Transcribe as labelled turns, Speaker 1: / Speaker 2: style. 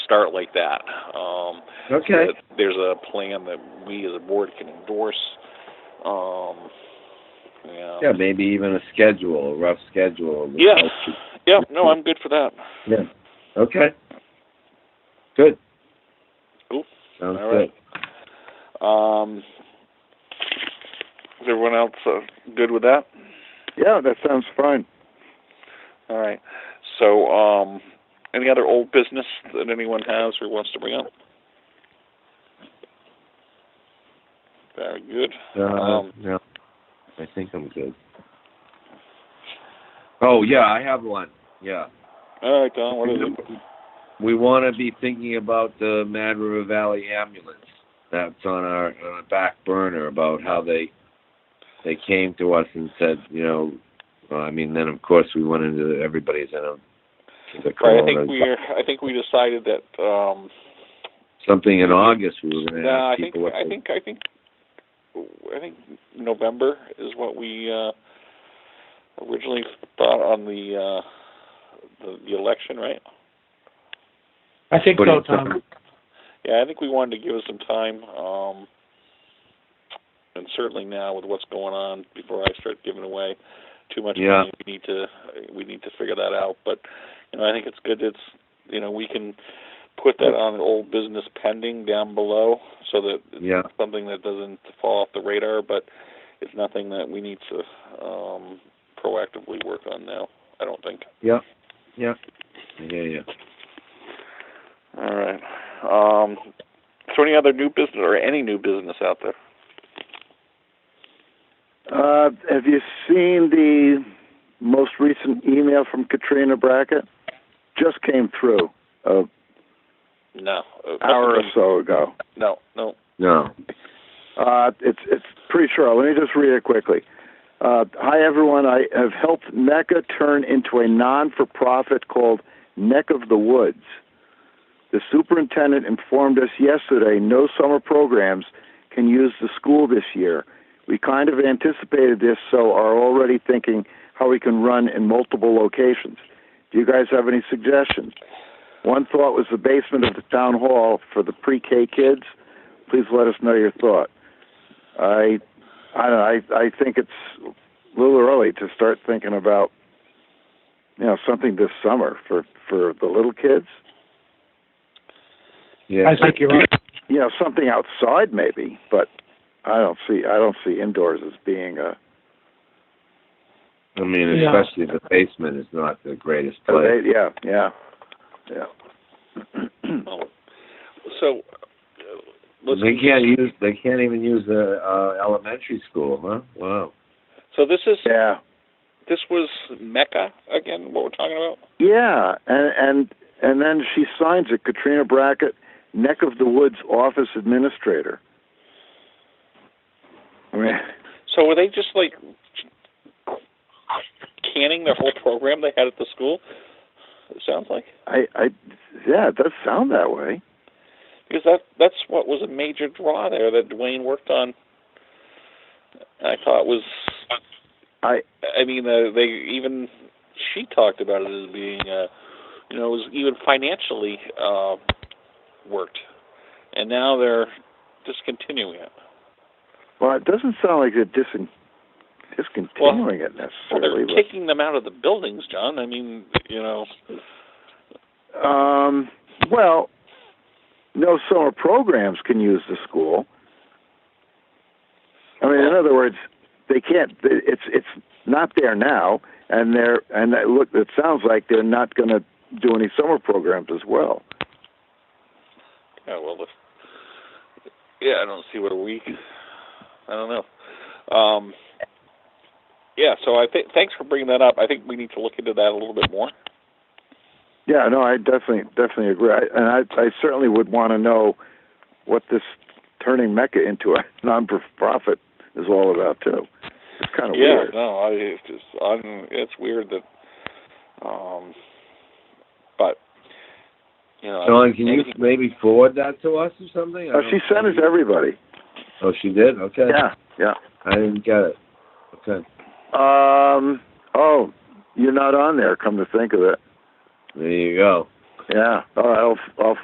Speaker 1: start like that. Um,
Speaker 2: Okay.
Speaker 1: that There's a plan that we as a board can endorse. Um, yeah.
Speaker 2: Yeah, maybe even a schedule, a rough schedule. of the-
Speaker 1: Yeah. Yeah, no, I'm good for that.
Speaker 2: Yeah. Okay. Good.
Speaker 1: Cool.
Speaker 2: Sounds
Speaker 1: All right. Um, is everyone else uh, good with that?
Speaker 3: Yeah, that sounds fine.
Speaker 1: All right. So, um, any other old business that anyone has or wants to bring up? Very good.
Speaker 2: good. Uh,
Speaker 1: Um,
Speaker 2: no, I think I'm good. Oh yeah, I have one. Yeah.
Speaker 1: All right, Don, what is it?
Speaker 2: We want to be thinking about the Mad River Valley ambulance. That's on our on our back burner about how they they came to us and said, you know, well, I mean, then of course we went into the, everybody's in a the
Speaker 1: Right, I
Speaker 2: corona-
Speaker 1: think we are, I think we decided that um
Speaker 2: something in August we were going to
Speaker 1: nah, I
Speaker 2: ask
Speaker 1: think
Speaker 2: people what
Speaker 1: I
Speaker 2: they-
Speaker 1: think I think I think November is what we uh originally thought on the uh the, the election, right?
Speaker 4: I think
Speaker 2: What do
Speaker 4: so,
Speaker 2: you think?
Speaker 4: Tom.
Speaker 1: Yeah, I think we wanted to give us some time um and certainly now with what's going on before I start giving away too much
Speaker 2: Yeah.
Speaker 1: money, we need to we need to figure that out, but you know, I think it's good it's you know, we can put that on old business pending down below so that
Speaker 2: yeah.
Speaker 1: something that doesn't fall off the radar, but it's nothing that we need to um, proactively work on now. I don't think.
Speaker 2: Yeah, yeah.
Speaker 1: All right. Um, is there any other new business or any new business out there?
Speaker 3: Uh, have you seen the most recent email from Katrina Brackett? Just came through an
Speaker 1: No. Uh,
Speaker 3: hour or so ago.
Speaker 1: No. No.
Speaker 2: No.
Speaker 3: Uh, it's it's pretty sure. Let me just read it quickly. Uh, hi everyone. I have helped NECA turn into a non-for-profit called Neck of the Woods. The superintendent informed us yesterday no summer programs can use the school this year. We kind of anticipated this, so are already thinking how we can run in multiple locations. Do you guys have any suggestions? One thought was the basement of the town hall for the pre-K kids. Please let us know your thought. I, I don't know, I, I think it's a little early to start thinking about, you know, something this summer for for the little kids.
Speaker 2: Yeah.
Speaker 4: I think you're right.
Speaker 3: You know, something outside maybe, but I don't see I don't see indoors as being a,
Speaker 2: I mean,
Speaker 4: Yeah.
Speaker 2: especially the basement is not the greatest
Speaker 3: a
Speaker 2: place.
Speaker 3: yeah yeah yeah.
Speaker 1: Oh. So uh, let's.
Speaker 2: They can't use. They can't even use the uh, elementary school, huh? Wow.
Speaker 1: So this is
Speaker 3: yeah.
Speaker 1: this was Mecca again. What we're talking about?
Speaker 3: Yeah, and and and then she signs it, Katrina Brackett, Neck of the Woods office administrator. I mean,
Speaker 1: So were they just like canning their whole program they had at the school? It sounds like.
Speaker 3: I, I, yeah, it does sound that way.
Speaker 1: because that that's what was a major draw there that Dwayne worked on. I thought was
Speaker 3: I-
Speaker 1: I mean uh, they even she talked about it as being uh you know it was even financially uh worked, and now they're discontinuing it.
Speaker 3: Well, it doesn't sound like they're disin, discontinuing it
Speaker 1: Well,
Speaker 3: necessarily.
Speaker 1: they're kicking them out of the buildings, John. I mean you know
Speaker 3: but, um, well, no summer programs can use the school. I mean, in other words, they can't. It's it's not there now, and they're and that, look, it sounds like they're not going to do any summer programs as well.
Speaker 1: yeah well if, yeah I don't see what a week I don't know. Um, yeah, so I think thanks for bringing that up. I think we need to look into that a little bit more.
Speaker 3: Yeah, no, I definitely definitely agree, I, and I I certainly would want to know what this turning Mecca into a non-profit is all about too. It's kind of
Speaker 1: yeah,
Speaker 3: weird.
Speaker 1: no, I it's just I'm, it's weird that, um, but you know,
Speaker 2: John, can you
Speaker 1: anything-
Speaker 2: maybe forward that to us or something? I
Speaker 3: Oh, she
Speaker 2: don't-
Speaker 3: sent it to everybody.
Speaker 2: Oh, she did. Okay.
Speaker 3: Yeah, yeah.
Speaker 2: I didn't get it. Okay.
Speaker 3: Um. Oh, you're not on there. Come to think of it.
Speaker 2: There you go.
Speaker 3: Yeah. All right. I'll I'll